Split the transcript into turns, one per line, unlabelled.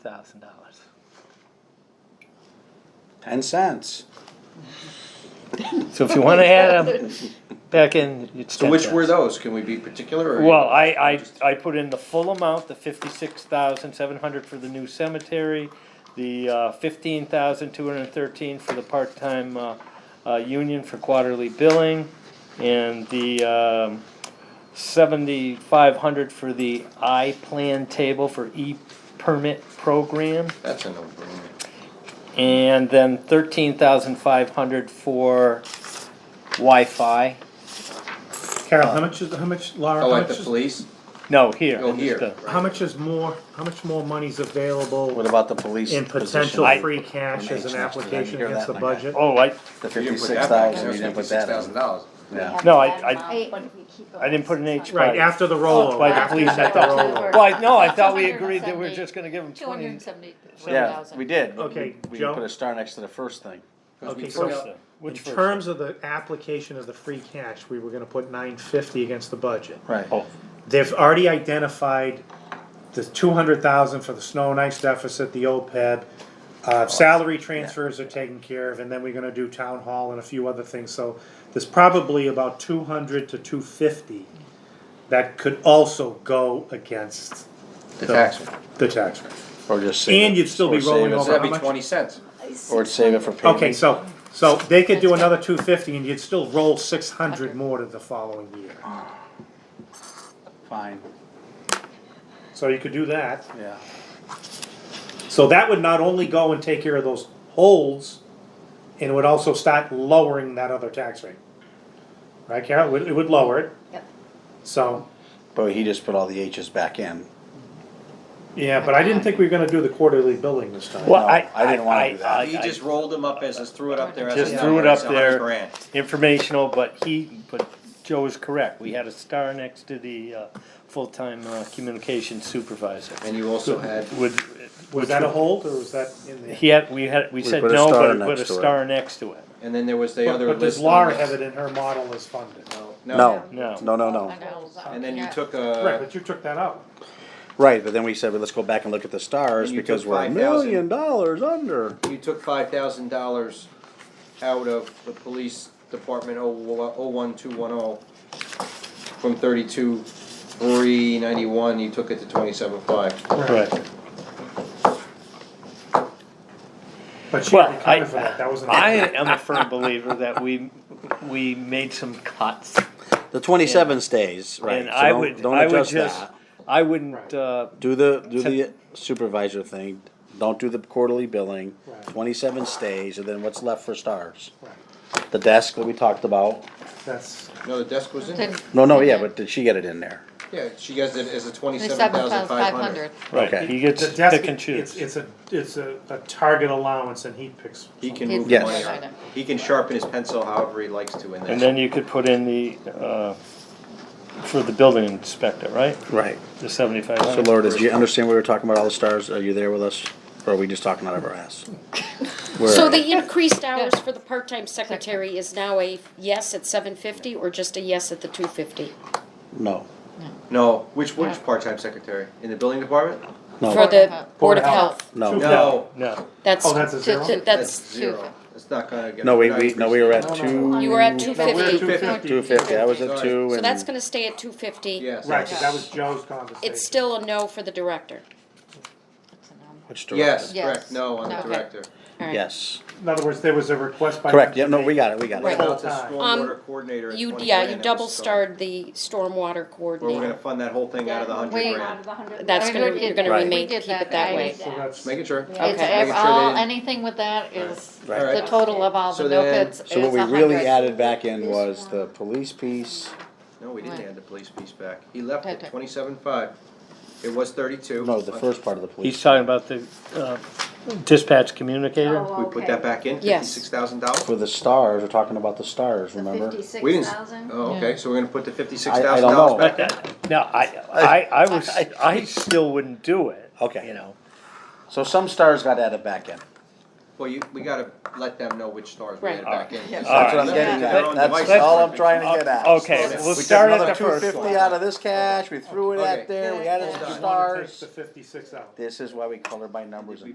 thousand dollars.
ten cents.
So if you wanna add them back in, it's
So which were
those?
those? Can we be particular or?
Well, I, I, I put in the full amount, the fifty-six thousand seven hundred for the new cemetery, the, uh, fifteen thousand two hundred and thirteen for the part-time, uh, uh, union for quarterly billing, and the, um, seventy-five hundred for the I-Plan table for e-permit program.
That's a no-brainer.
And then thirteen thousand five hundred for Wi-Fi. Uh,
Carol, how much is, how much, Laura,
Oh,
how
at the
much is,
police?
No, here.
Oh, here.
just a-
how much is more, how much more money's available
What about the police?
in
position?
potential
I-
free cash as
Next, I
an
didn't
application
hear
against the
that, my guy.
budget?
Oh, I,
The
You didn't put
fifty-six
that back in.
thousand, you didn't put
Fifty-six
that
thousand
in.
dollars.
Yeah.
No, I- I-
I
I didn't put an H by.
Right, after the rollover.
By the
after
police, I
the
thought-
rollover.
Well, I- no, I thought we agreed that we were just gonna give them
Two hundred
twenty.
and seventy.
Yeah, we did. but
Okay,
we- We
Joe?
put a star next to the first thing.
Okay,
First,
so
though.
in
Which first?
terms of the application of the free cash, we were gonna put nine fifty against the budget.
Right.
Oh,
They've already identified the two hundred thousand for the snow and ice deficit, the OPEB. Uh, salary transfers are taken care of, and then we're gonna do town hall and a few other things, so there's probably about two hundred to two fifty that could also go against
The tax one.
the tax rate.
Or just save it.
And you'd still be
Or save
rolling
it.
over
So that'd
how
be
much?
twenty cents.
Or save it for paving.
Okay, so, so they could do another two fifty and you'd still roll six hundred more to the following year.
Fine,
So you could do that.
yeah.
So that would not only go and take care of those holds, and it would also start lowering that other tax rate. Right, Carol? It would, it would lower it,
Yep.
so,
But he just put all the H's back in.
yeah, but I didn't think we were gonna do the quarterly billing this time.
Well,
No,
I-
I didn't wanna do that.
I-
He
I-
just rolled them up as, just threw it up there as. a
Just threw it
number,
up
it's a hundred
there.
grand.
informational, but he, but Joe is correct. We had a star next to the, uh, full-time, uh, communications supervisor.
And you also had,
Would,
Was that a hold, or was that in there?
he had, we had, we said
put a
no, but
star
we put a
next to it.
star next to it.
and then there was the
But
other
but
list.
does
on
Laura
the-
have it in her model as funded?
No,
Oh, No.
no, no, no.
And then you took uh,
Right,
a,
but you took that out.
Right, but then we said, well, let's go back and look at the stars
And you
because
took
we're a
5,000.
million dollars under.
you took five thousand dollars out of the police department oh, wa- oh one two one oh. From thirty-two, three ninety-one, you took it to twenty-seven five.
Right.
But she
Well,
already
I,
covered for that, that was in.
I am a firm believer that we, we made some cuts.
The twenty-seven stays, right?
And
so
I
don't-
would,
don't
I would
adjust
just,
that.
I wouldn't, uh,
Do the, do the supervisor thing, don't do the quarterly billing,
Right.
twenty-seven stays, and then what's left for stars?
Right,
The desk that we talked about,
That's,
No, the desk was in there.
no, no, yeah, but did she get it in there?
Yeah, she has it as a twenty-seven
Seven
thousand
thousand
five hundred.
right,
Okay.
he
the
gets
desk,
pick and
it's,
choose.
it's a, it's a, a target allowance and he picks.
He can
He's
move the
Yes.
money around. He can sharpen his pencil however he likes to in
And
that.
then you could put in the, uh, for the building inspector, right?
Right.
The seventy-five
So
hundred.
Laura, did you understand we were talking about all the stars? Are you there with us? Or are we just talking out of our ass? Where
So
are you?
the increased hours for the part-time secretary is now a yes at seven fifty or just a yes at the two fifty?
No,
No, which, which part-time secretary? In the building department?
For
no,
the Board of Health,
no.
No.
No,
that's,
Oh, that's a zero?
that- that's,
Zero. It's not gonna get.
No, we, we, no, we were at two,
you were at two
No, we're at
fifty,
250.
two fifty, I was at
Sorry.
two
so
and.
that's gonna stay at two fifty.
Yes.
Right, 'cause that was Joe's conversation.
It's still a no for the director.
Which direction?
Yes,
Yes.
correct, no, on the
Okay.
director.
All right.
Yes,
In other words, there was a request by.
correct, yeah, no, we got it, we got
What
it.
Right.
about the
Um,
stormwater coordinator at
You,
20
yeah,
grand
you
that
double
was so-
starred the
Where
stormwater
we're gonna
coordinator.
fund that whole thing out of the hundred
Wait.
grand.
That's gonna, you're gonna
Right.
remain, keep it that way.
So that's,
Making sure.
It's,
Okay.
ev-
Making sure they
all,
didn't-
anything with that is,
Right.
the total of all
So
the no
then-
bids is
So what we
a
really
hundred.
added back in was the police piece,
No, we didn't
Right.
add the police piece back. He left it
Okay.
twenty-seven five. It was thirty-two.
no, the first part of the
he's
police,
talking about the, uh, dispatch
Oh,
communicator.
We put that back in,
Yes.
fifty-six thousand dollars?
for the stars, we're talking about the stars, remember?
We didn't, oh, okay, so we're gonna put the fifty-six
I- I
thousand
don't know.
dollars
But
back in?
that, now, I, I, I was, I still wouldn't do it.
Okay.
You know,
So some stars got added back in,
Well, you, we gotta let them know which stars we
Right.
add back in.
Yeah.
because
That's what I'm
they're
getting
their
at,
own
that's
devices.
all I'm trying to get at.
Okay,
Yes.
we'll
We took
start at
another
the
two
first
fifty
one.
out of this cash, we threw it
Okay.
out there, we added
Yeah,
some
I wanna take
stars.
the fifty-six out.
This is why we color by numbers and